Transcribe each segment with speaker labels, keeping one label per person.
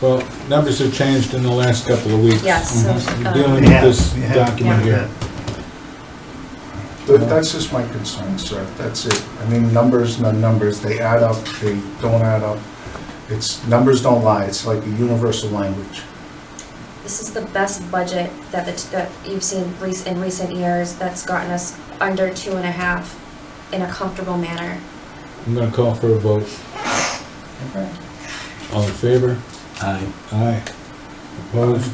Speaker 1: Well, numbers have changed in the last couple of weeks.
Speaker 2: Yes, so,
Speaker 1: Mhm.
Speaker 2: um,
Speaker 1: Dealing with this document here.
Speaker 3: But That's just my concern, sir, that's it. I mean, numbers, not numbers, they add up, they don't add up. It's, numbers don't lie, it's like a universal language.
Speaker 2: This is the best budget that, the- that you've seen rec- in recent years that's gotten us under two and a half in a comfortable manner.
Speaker 1: I'm gonna call for a vote.
Speaker 3: Okay.
Speaker 1: All in favor?
Speaker 4: Aye.
Speaker 1: Aye. Opposed?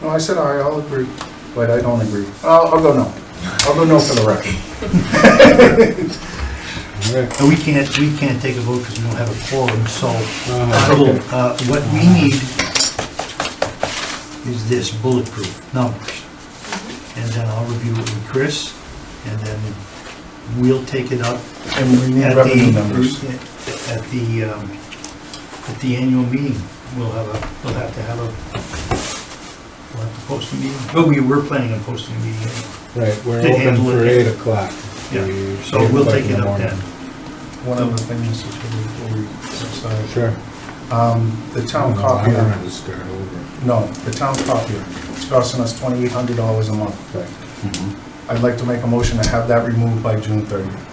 Speaker 3: No, I said aye, I'll agree, but I don't agree. I'll, I'll go no. I'll go no for the record.
Speaker 1: All right. Uh-huh,
Speaker 5: And we can't, we can't take a vote because we don't have a quorum, so
Speaker 1: Uh,
Speaker 5: Article, uh, what we need is this bulletproof numbers. And then I'll review it with Chris, and then we'll take it up
Speaker 3: And we need
Speaker 5: at
Speaker 3: revenue
Speaker 5: the,
Speaker 3: numbers.
Speaker 5: at the, um, at the annual meeting. We'll have a, we'll have to have a, we'll have to post a meeting. But we were planning on posting a meeting anyway,
Speaker 1: Right, we're
Speaker 5: They
Speaker 1: open
Speaker 5: handle
Speaker 1: for
Speaker 5: it.
Speaker 1: eight o'clock.
Speaker 5: yeah, so we'll take it up then.
Speaker 3: One of the things is before we, I'm sorry.
Speaker 1: Oh, Sure. Oh,
Speaker 3: Um, the town
Speaker 1: I don't
Speaker 3: copier,
Speaker 1: want to start over.
Speaker 3: no, the town copier, it's costing us twenty-eight hundred dollars a month.
Speaker 1: Right.
Speaker 3: I'd like to make a motion to have that removed by June thirtieth.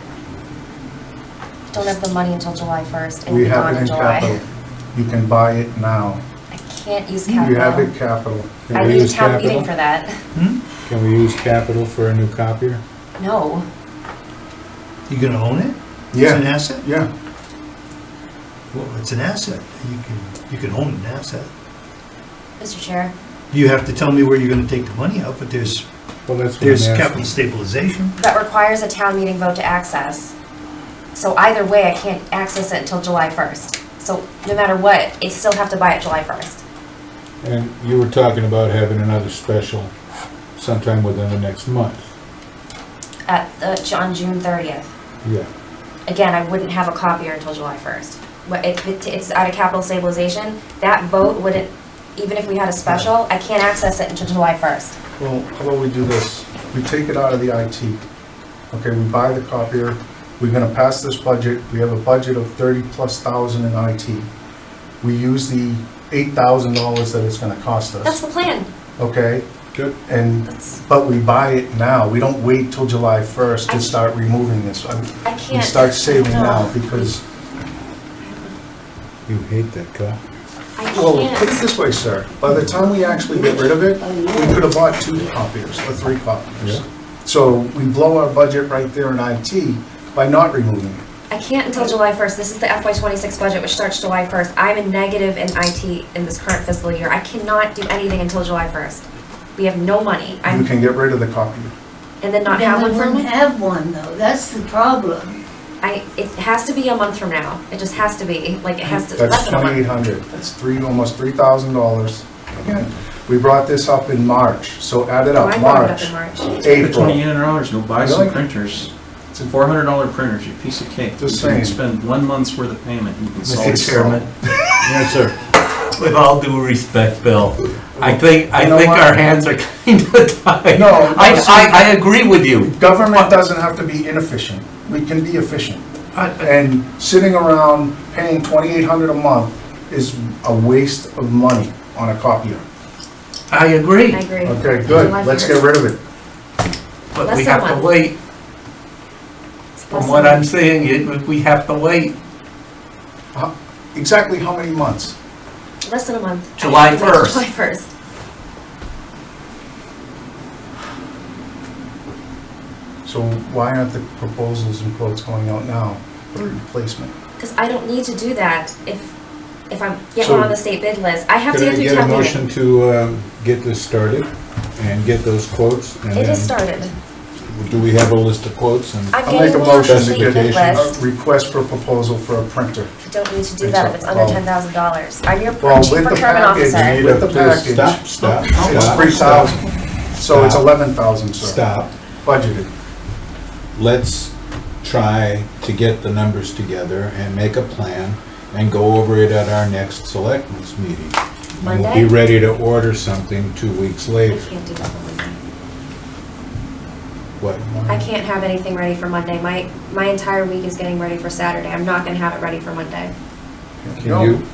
Speaker 2: Don't have the money until July first and
Speaker 3: We
Speaker 2: be gone
Speaker 3: have it
Speaker 2: in
Speaker 3: in capital.
Speaker 2: July.
Speaker 3: You can buy it now.
Speaker 2: I can't use
Speaker 3: You have it
Speaker 2: capital.
Speaker 3: capital.
Speaker 1: Can
Speaker 2: I
Speaker 1: we
Speaker 2: need
Speaker 1: use
Speaker 2: town
Speaker 1: capital?
Speaker 2: meeting for that.
Speaker 5: Hmm?
Speaker 1: Can we use capital for a new copier?
Speaker 2: No,
Speaker 5: You gonna own it? It's an
Speaker 3: Yeah,
Speaker 5: asset?
Speaker 3: yeah.
Speaker 5: Well, it's an asset. You can, you can own an asset.
Speaker 2: Mr. Chair,
Speaker 5: You have to tell me where you're gonna take the money out, but there's,
Speaker 1: Well, that's what
Speaker 5: there's
Speaker 1: I'm
Speaker 5: capital
Speaker 1: asking.
Speaker 5: stabilization.
Speaker 2: that requires a town meeting vote to access. So either way, I can't access it until July first. So no matter what, I still have to buy it July first.
Speaker 1: And you were talking about having another special sometime within the next month.
Speaker 2: At, the- on June thirtieth.
Speaker 1: Yeah.
Speaker 2: again, I wouldn't have a copier until July first. But it, it- it's out of capital stabilization, that vote wouldn't, even if we had a special, I can't access it until July first.
Speaker 3: Well, how about we do this? We take it out of the IT. Okay, we buy the copier, we're gonna pass this budget, we have a budget of thirty-plus thousand in IT. We use the eight thousand dollars that it's gonna cost
Speaker 2: That's
Speaker 3: us,
Speaker 2: the plan,
Speaker 3: okay?
Speaker 1: Good.
Speaker 3: And,
Speaker 2: that's,
Speaker 3: but we buy it now, we don't wait till July first to start removing this. I mean,
Speaker 2: I
Speaker 3: We
Speaker 2: can't.
Speaker 3: start saving now,
Speaker 2: No.
Speaker 3: because,
Speaker 1: You hate that copy.
Speaker 2: I
Speaker 3: well, put it
Speaker 2: can't,
Speaker 3: this way, sir, by the time we actually get rid of it, we could have bought two copiers, or three copiers.
Speaker 1: Yeah.
Speaker 3: So we blow our budget right there in IT by not removing it.
Speaker 2: I can't until July first, this is the FY twenty-six budget, which starts July first, I'm in negative in IT in this current fiscal year, I cannot do anything until July first. We have no money,
Speaker 3: You
Speaker 2: I'm,
Speaker 3: can get rid of the copier.
Speaker 2: and then not
Speaker 6: Then
Speaker 2: have
Speaker 6: we
Speaker 2: one for a
Speaker 6: wouldn't
Speaker 2: month.
Speaker 6: have one, though, that's the problem.
Speaker 2: I, it has to be a month from now, it just has to be, like, it has to, less
Speaker 3: That's
Speaker 2: than a month.
Speaker 3: twenty-eight hundred, that's three, almost three thousand dollars. Again, we brought this up in March, so add it
Speaker 2: Oh, I
Speaker 3: up,
Speaker 2: brought it up
Speaker 3: March,
Speaker 2: in March.
Speaker 4: Put twenty
Speaker 3: April.
Speaker 4: in dollars, go buy some
Speaker 3: Really?
Speaker 4: printers. It's a four hundred dollar printer, you piece of cake.
Speaker 3: Just
Speaker 4: You can
Speaker 3: saying.
Speaker 4: spend one month's worth of payment, you can solve
Speaker 3: Mr.
Speaker 4: this problem.
Speaker 3: Chairman,
Speaker 1: Yes, sir.
Speaker 7: With all due respect, Bill, I think, I
Speaker 3: You know
Speaker 7: think
Speaker 3: what?
Speaker 7: our hands are kind of tied.
Speaker 3: No,
Speaker 7: I,
Speaker 3: no, see-
Speaker 7: I, I agree with you.
Speaker 3: Government doesn't have to be inefficient, we can be efficient. And sitting around paying twenty-eight hundred a month is a waste of money on a copier.
Speaker 7: I agree,
Speaker 2: I agree.
Speaker 3: Okay, good,
Speaker 2: July
Speaker 3: let's
Speaker 2: first.
Speaker 3: get rid of it.
Speaker 7: but we
Speaker 2: Less
Speaker 7: have
Speaker 2: than
Speaker 7: to
Speaker 2: one.
Speaker 7: wait. From what I'm saying, it- we have to wait.
Speaker 3: How- Exactly how many months?
Speaker 2: Less than a month.
Speaker 7: July
Speaker 2: Actually,
Speaker 7: 1st.
Speaker 2: July first.
Speaker 3: So why aren't the proposals and quotes going out now for replacement?
Speaker 2: Because I don't need to do that if, if I'm, get
Speaker 3: So-
Speaker 2: one on the state bid list. I have to
Speaker 1: Could I
Speaker 2: get through
Speaker 1: get a
Speaker 2: town
Speaker 1: motion
Speaker 2: meeting.
Speaker 1: to um, get this started and get those quotes? and
Speaker 2: It is
Speaker 1: then
Speaker 2: started.
Speaker 1: Do we have a list of quotes? and-
Speaker 2: I'm
Speaker 3: I'll make
Speaker 2: getting
Speaker 3: a
Speaker 2: one on
Speaker 3: motion
Speaker 2: the
Speaker 3: to
Speaker 2: state
Speaker 3: get
Speaker 2: bid
Speaker 3: a
Speaker 2: list.
Speaker 3: request for proposal for a printer.
Speaker 2: I don't need to do
Speaker 3: It's
Speaker 2: that
Speaker 3: a
Speaker 2: if it's under ten
Speaker 3: problem.
Speaker 2: thousand dollars. I'm your
Speaker 3: Well,
Speaker 2: chief
Speaker 3: with the
Speaker 2: procurement
Speaker 3: package, you
Speaker 2: officer.
Speaker 3: need- With the package.
Speaker 1: Stop, stop,
Speaker 3: It's
Speaker 1: stop,
Speaker 3: three
Speaker 1: stop,
Speaker 3: thousand, so it's
Speaker 1: Stop.
Speaker 3: eleven thousand, sir.
Speaker 1: stop.
Speaker 3: Budgeted.
Speaker 1: Let's try to get the numbers together and make a plan and go over it at our next selectmen's meeting. And We'll be
Speaker 2: Monday?
Speaker 1: ready to order something two weeks
Speaker 2: I
Speaker 1: later.
Speaker 2: can't do that on Monday.
Speaker 1: What?
Speaker 2: I can't have anything ready for Monday. My, my entire week is getting ready for Saturday. I'm not gonna have it ready for Monday.
Speaker 1: Can you,